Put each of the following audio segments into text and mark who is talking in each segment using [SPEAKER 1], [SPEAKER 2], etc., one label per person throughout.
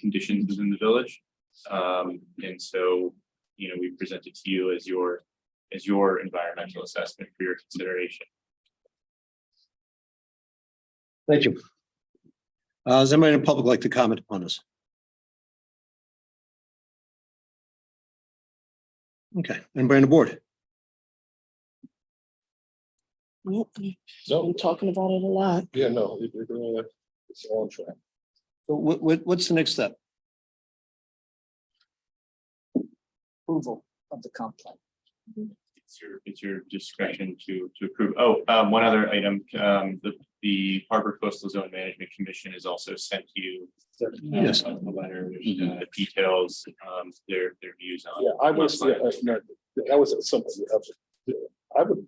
[SPEAKER 1] conditions within the village. Um, and so, you know, we present it to you as your, as your environmental assessment for your consideration.
[SPEAKER 2] Thank you. Uh, does anybody in the public like to comment upon this? Okay, anybody on the board?
[SPEAKER 3] Nope, we've
[SPEAKER 4] No,
[SPEAKER 3] been talking about it a lot.
[SPEAKER 4] yeah, no, it- it, uh, it's all on track.
[SPEAKER 2] So What, what, what's the next step?
[SPEAKER 5] approval of the comp plan.
[SPEAKER 1] It's your, it's your discretion to, to approve. Oh, um, one other item, um, the, the Harbor Coastal Zone Management Commission has also sent you. uh,
[SPEAKER 2] Yes.
[SPEAKER 1] A letter, which
[SPEAKER 4] Mm-hmm.
[SPEAKER 1] uh, details, um, their, their views on.
[SPEAKER 4] Yeah, I was, yeah, that's not- that was something, else. I would.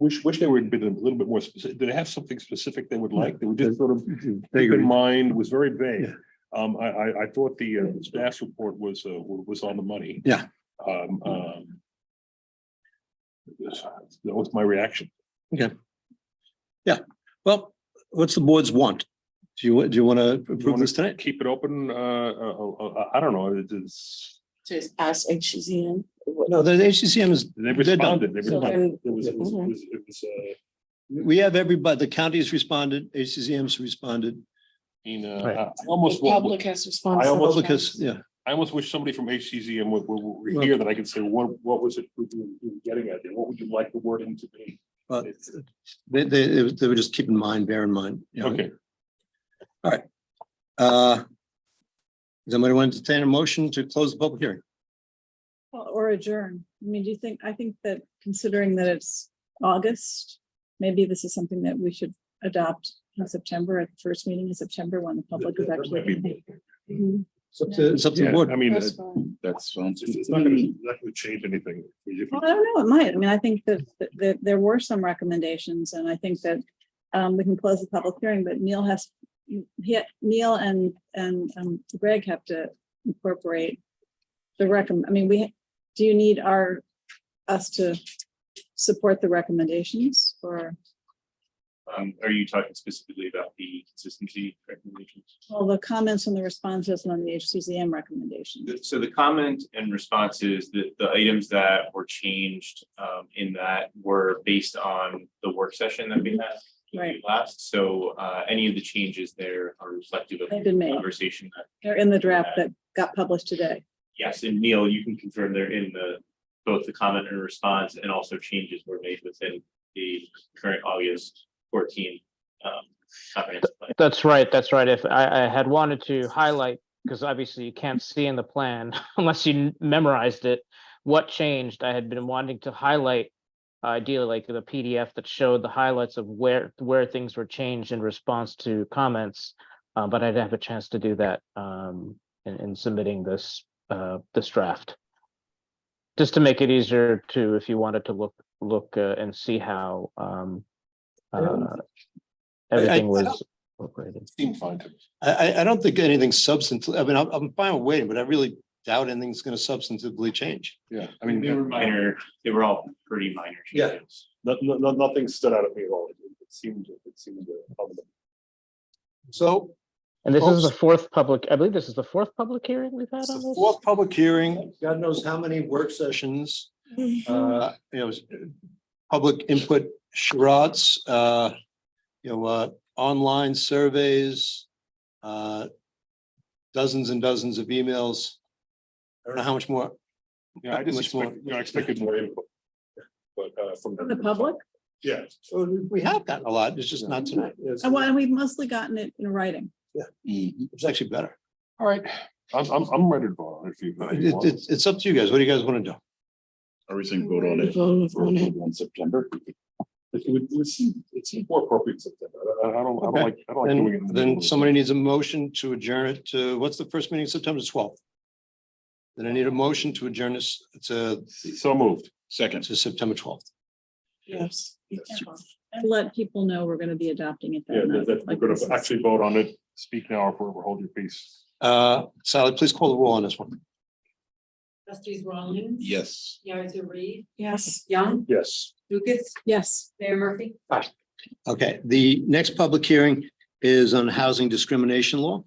[SPEAKER 4] Wish, wish they were a bit, a little bit more specific. Did they have something specific they would like? They would just sort of keep in mind was very vague.
[SPEAKER 2] Yeah.
[SPEAKER 4] Um, I, I, I thought the uh, staff's report was, uh, wa- was on the money.
[SPEAKER 2] Yeah.
[SPEAKER 4] Um, um. That was my reaction.
[SPEAKER 2] Well, what's the board's want? Do you, do you want to
[SPEAKER 4] You
[SPEAKER 2] approve
[SPEAKER 4] wanna
[SPEAKER 2] this tonight?
[SPEAKER 4] Keep it open, uh, uh, uh, uh, I don't know, it is,
[SPEAKER 3] Just ask H C N.
[SPEAKER 2] No, the HCCM is,
[SPEAKER 4] they
[SPEAKER 2] They're done.
[SPEAKER 4] responded, they
[SPEAKER 3] So
[SPEAKER 4] responded.
[SPEAKER 3] then,
[SPEAKER 4] It was, it was,
[SPEAKER 3] Mhm.
[SPEAKER 4] it was, it was, uh,
[SPEAKER 2] we have everybody, the county's responded, HCCM's responded,
[SPEAKER 4] in, uh,
[SPEAKER 2] Right.
[SPEAKER 4] I almost, wa-
[SPEAKER 3] public has responsibility.
[SPEAKER 4] I almost-
[SPEAKER 2] public has, yeah,
[SPEAKER 4] I almost wish somebody from HCZM would, would, would
[SPEAKER 2] Well-
[SPEAKER 4] hear that I could say, what, what was it we were we were getting at? there? What would you like the wording to be?
[SPEAKER 2] but they, they, they would just keep in mind, bear in mind. you know.
[SPEAKER 4] Okay,
[SPEAKER 2] Uh, Does anybody want to entertain a motion to close the public hearing?
[SPEAKER 6] Well, Or adjourn. I mean, do you think, I think that considering that it's August, maybe this is something that we should adopt in September, at the first meeting in September when the public is actually.
[SPEAKER 3] Mm-hmm.
[SPEAKER 6] Mhm.
[SPEAKER 2] It's up to- It's up to the board.
[SPEAKER 4] I mean,
[SPEAKER 3] That's
[SPEAKER 4] it's,
[SPEAKER 3] fine.
[SPEAKER 4] it's not gonna, not gonna change anything. If you-
[SPEAKER 6] Well, I don't know, it might. I mean, I think that, that- that there were some recommendations and I think that um, we can close the public hearing, but Neil has, he, Neil and, and um, Greg have to incorporate the recommend, I mean, we, do you need our, us to support the recommendations or?
[SPEAKER 1] Um, are you talking specifically about the consistency recommendations?
[SPEAKER 6] Well, the comments and the responses and on the HCZM recommendation.
[SPEAKER 1] The- So the comment and responses, the, the items that were changed, um, in that were based on the work session that we had.
[SPEAKER 6] Right.
[SPEAKER 1] Last, so, uh, any of the changes there are reflective of
[SPEAKER 6] They've
[SPEAKER 1] the
[SPEAKER 6] been made.
[SPEAKER 1] conversation that,
[SPEAKER 6] They're in the draft that got published today.
[SPEAKER 1] yes, and Neil, you can confirm they're in the, both the comment and response and also changes were made within the current August fourteen, um, comprehensive plan.
[SPEAKER 7] That's right, that's right. If I, I had wanted to highlight, because obviously you can't see in the plan unless you n- memorized it, what changed, I had been wanting to highlight uh, ideally like the PDF that showed the highlights of where, where things were changed in response to comments. Uh, but I didn't have a chance to do that, um, in, in submitting this, uh, this draft. Just to make it easier to, if you wanted to look, look, uh, and see how, um, uh,
[SPEAKER 2] I- I-
[SPEAKER 7] everything
[SPEAKER 2] I
[SPEAKER 7] was
[SPEAKER 2] don't-
[SPEAKER 7] incorporated.
[SPEAKER 4] Seemed fine to me.
[SPEAKER 2] I, I, I don't think anything substantive, I mean, I'm, I'm fine with waiting, but I really doubt anything's gonna substantively change.
[SPEAKER 4] Yeah, I
[SPEAKER 1] I mean,
[SPEAKER 4] mean,
[SPEAKER 1] they were minor, they were all pretty minor
[SPEAKER 2] Yeah.
[SPEAKER 1] changes.
[SPEAKER 4] no, no, no- nothing stood out at me at all. It it seemed, it seemed. uh, public.
[SPEAKER 2] So
[SPEAKER 7] And this is
[SPEAKER 2] Folks-
[SPEAKER 7] the fourth public, I believe this is the fourth public hearing we've had
[SPEAKER 2] it's
[SPEAKER 7] on
[SPEAKER 2] the
[SPEAKER 7] this.
[SPEAKER 2] fourth public hearing, God knows how many work sessions, uh, you know, public input charades, uh, you know, uh, online surveys, uh, dozens and dozens of emails. I don't know how much more
[SPEAKER 4] Yeah, I just
[SPEAKER 2] Much more.
[SPEAKER 4] expected, you know, I expected more input. But, uh, from.
[SPEAKER 6] From the public?
[SPEAKER 4] Yeah.
[SPEAKER 2] Well, we- We have gotten a lot, it's just not tonight. It's
[SPEAKER 6] And why- we've mostly gotten it in writing.
[SPEAKER 2] it's actually better.
[SPEAKER 4] All right, I'm, I'm, I'm ready to vote if you. if you
[SPEAKER 2] It-
[SPEAKER 4] want.
[SPEAKER 2] It's, it's up to you guys. What do you guys want to do?
[SPEAKER 4] Everything
[SPEAKER 6] vote on it. Vote
[SPEAKER 2] Mm-hmm.
[SPEAKER 6] on it.
[SPEAKER 4] on September. It would, it seemed, it seemed more appropriate September. I, I don't, I don't
[SPEAKER 2] Okay.
[SPEAKER 4] like, I don't like
[SPEAKER 2] Then,
[SPEAKER 4] doing it. in the middle
[SPEAKER 2] then
[SPEAKER 4] of
[SPEAKER 2] somebody needs a motion to adjourn it to, what's the first meeting, September twelfth? Then I need a motion to adjourn this to,
[SPEAKER 4] the- So moved.
[SPEAKER 2] to September twelfth.
[SPEAKER 6] Yes. And let people know we're going to be adopting it
[SPEAKER 4] Yeah, that,
[SPEAKER 6] that
[SPEAKER 4] that, we're
[SPEAKER 6] night. like
[SPEAKER 4] gonna
[SPEAKER 6] this is-
[SPEAKER 4] actually vote on it. Speak now or forever hold your peace.
[SPEAKER 2] Uh, Sally, please call the roll on this one.
[SPEAKER 8] Trustees Rawlings.
[SPEAKER 5] Yes.
[SPEAKER 8] Piazza Reed,
[SPEAKER 6] Yes,
[SPEAKER 8] Young,
[SPEAKER 4] Yes.
[SPEAKER 8] Lucas,
[SPEAKER 6] yes.
[SPEAKER 8] Mayor Murphy.
[SPEAKER 2] Okay, the next public hearing is on housing discrimination law.